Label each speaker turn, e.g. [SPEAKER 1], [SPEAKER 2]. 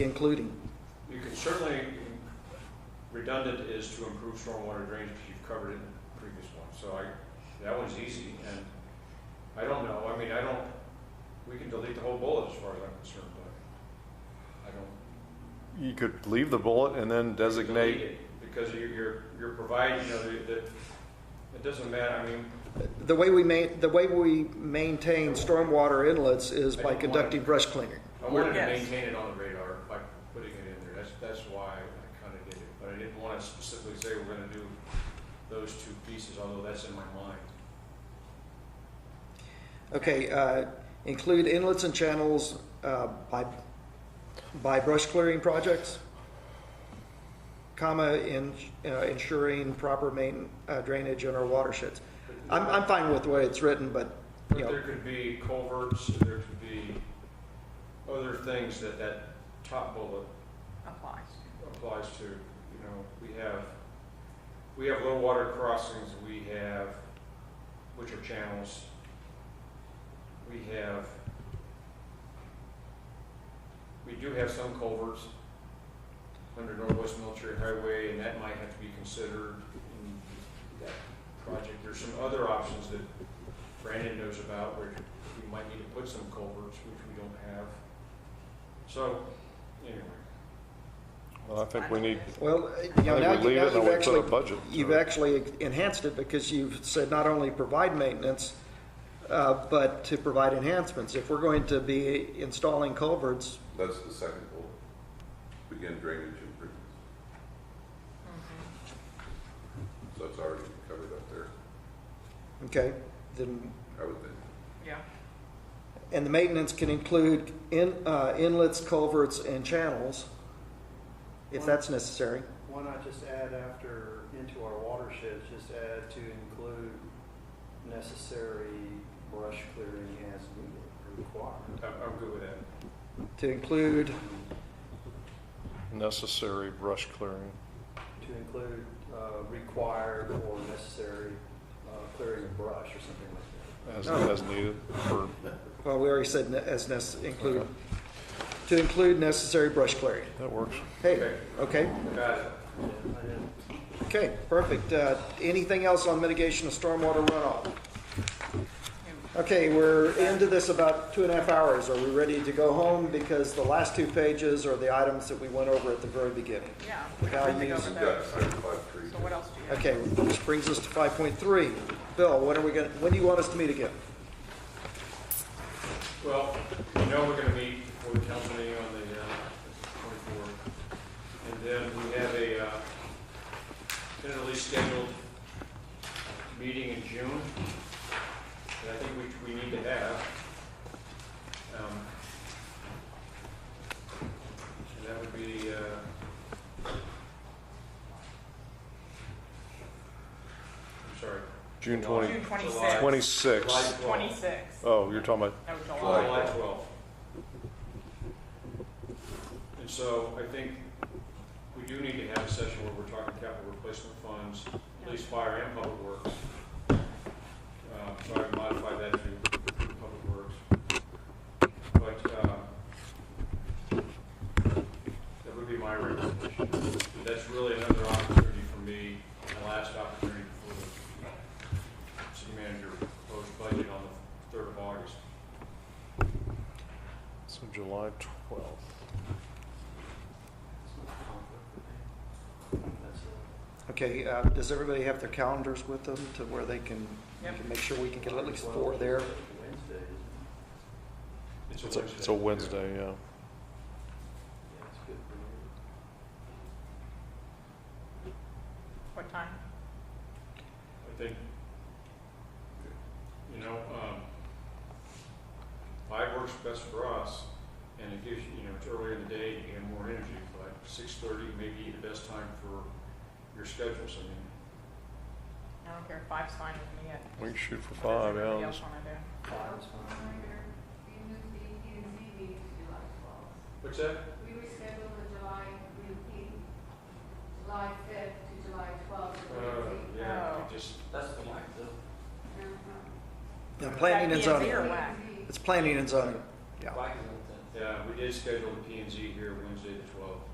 [SPEAKER 1] including.
[SPEAKER 2] You could certainly, redundant is to improve stormwater drainage, because you've covered it in the previous one, so I, that one's easy, and I don't know, I mean, I don't, we can delete the whole bullet as far as I'm concerned, but I don't.
[SPEAKER 3] You could leave the bullet and then
[SPEAKER 2] delete
[SPEAKER 3] designate,
[SPEAKER 2] it, Because you're, you're, you're providing, you know, that, that- it doesn't matter, I mean,
[SPEAKER 1] The way we ma, the way we maintain stormwater inlets is by conducting brush cleaning.
[SPEAKER 2] I wanted to
[SPEAKER 4] Yes.
[SPEAKER 2] maintain it on the radar by putting it in there, that's, that's why I kinda did it, but I didn't wanna specifically say we're gonna do those two pieces, although that's in my mind.
[SPEAKER 1] Okay, uh, include inlets and channels, uh, by, by brush clearing projects, comma, in, uh, ensuring proper main, uh, drainage in our watersheds. I'm, I'm fine with the way it's written, but, you
[SPEAKER 2] But
[SPEAKER 1] know,
[SPEAKER 2] there could be culverts, there could be other things that that top bullet
[SPEAKER 4] applies.
[SPEAKER 2] applies to. You know, we have, we have low water crossings, we have, which are channels. We have, we do have some culverts under Northwest Military Highway, and that might have to be considered in that project. There's some other options that Brandon knows about where we might need to put some culverts, which we don't have. So, anyway.
[SPEAKER 3] well, I think we need,
[SPEAKER 1] well,
[SPEAKER 3] I
[SPEAKER 1] you know, now
[SPEAKER 3] think we
[SPEAKER 1] you-
[SPEAKER 3] leave
[SPEAKER 1] now
[SPEAKER 3] it
[SPEAKER 1] you've
[SPEAKER 3] and we put a
[SPEAKER 1] actually
[SPEAKER 3] budget. uh,
[SPEAKER 1] You've actually enhanced it because you've said not only provide maintenance, uh, but to provide enhancements. If we're going to be installing culverts,
[SPEAKER 5] That's the second bullet. Begin drainage improvements.
[SPEAKER 4] Mm-hmm.
[SPEAKER 5] So that's already covered up there,
[SPEAKER 1] okay, then,
[SPEAKER 5] I would think.
[SPEAKER 4] Yeah.
[SPEAKER 1] and the maintenance can include in, uh, inlets, culverts, and channels, if that's necessary.
[SPEAKER 6] Why not just add after, into our watersheds, just add to include necessary brush clearing as needed, required?
[SPEAKER 2] I'm, I'm good with that.
[SPEAKER 1] To include,
[SPEAKER 3] necessary brush clearing.
[SPEAKER 6] To include uh, required or necessary uh, clearing of brush or something like that.
[SPEAKER 3] As, as needed for,
[SPEAKER 1] well, we already said ne- as nec, include, to include necessary brush clearing.
[SPEAKER 3] that works.
[SPEAKER 1] Hey, okay,
[SPEAKER 2] Got it.
[SPEAKER 6] Yeah, I didn't-
[SPEAKER 1] okay, perfect. Uh, Anything else on mitigation of stormwater runoff? Okay, we're into this about two and a half hours. Are we ready to go home? Because the last two pages are the items that we went over at the very beginning.
[SPEAKER 4] Yeah.
[SPEAKER 1] Values
[SPEAKER 4] Think over
[SPEAKER 5] We've
[SPEAKER 4] those.
[SPEAKER 5] got certified trees.
[SPEAKER 4] So what else do you have?
[SPEAKER 1] Okay, which brings us to five point three. Bill, when are we gonna, when do you want us to meet again?
[SPEAKER 2] Well, we know we're gonna meet for the council meeting on the twenty-fourth. And then we have a, uh, tentatively scheduled meeting in June. that I think we, we need to have. Um, And that would be, uh, I'm sorry.
[SPEAKER 3] June
[SPEAKER 2] July-
[SPEAKER 4] June
[SPEAKER 3] 20,
[SPEAKER 2] July-
[SPEAKER 4] 26.
[SPEAKER 3] 26.
[SPEAKER 2] July 12th.
[SPEAKER 4] Twenty-six.
[SPEAKER 3] Oh, you're talking about,
[SPEAKER 4] No,
[SPEAKER 5] July.
[SPEAKER 4] July.
[SPEAKER 2] July 12th. And so I think we do need to have a session where we're talking capital replacement funds, police, fire, and public works. Um, So I modified that to public works. But um, that would be my recommendation. That's really another opportunity for me, the last opportunity for the city manager proposed budget on the 3rd of August.
[SPEAKER 3] so July 12th.
[SPEAKER 6] it's not a conflict with me. That's all.
[SPEAKER 1] Okay, uh, does everybody have their calendars with them to where they can, we
[SPEAKER 4] Yep.
[SPEAKER 1] can make sure we can get at least
[SPEAKER 6] Well,
[SPEAKER 1] four there?
[SPEAKER 6] Wednesday, isn't it?
[SPEAKER 3] It's a, it's a Wednesday, yeah.
[SPEAKER 6] yeah, it's good for me.
[SPEAKER 4] What time?
[SPEAKER 2] I think, you know, um, five works best for us, and it gives, you you know, it's earlier in the day, you have more energy, but six thirty may be the best time for your schedules, I mean.
[SPEAKER 4] I don't care. Five's fine with me. Yet.
[SPEAKER 3] We can shoot for five, yeah.
[SPEAKER 4] What does everybody
[SPEAKER 3] let's-
[SPEAKER 4] else wanna do?
[SPEAKER 6] Five's fine.
[SPEAKER 7] We moved the P and Z meeting to July twelfth.
[SPEAKER 2] What's that?
[SPEAKER 7] We rescheduled the July, we, we- July fifth to July twelfth.
[SPEAKER 2] Uh, yeah,
[SPEAKER 4] Oh.
[SPEAKER 2] we just,
[SPEAKER 1] Now, planning and
[SPEAKER 4] Is that P and Z
[SPEAKER 1] zoning.
[SPEAKER 4] or WAC?
[SPEAKER 1] It's planning and zoning. Yeah.
[SPEAKER 8] Why is it then?
[SPEAKER 2] Uh, we did schedule the P and Z here Wednesday,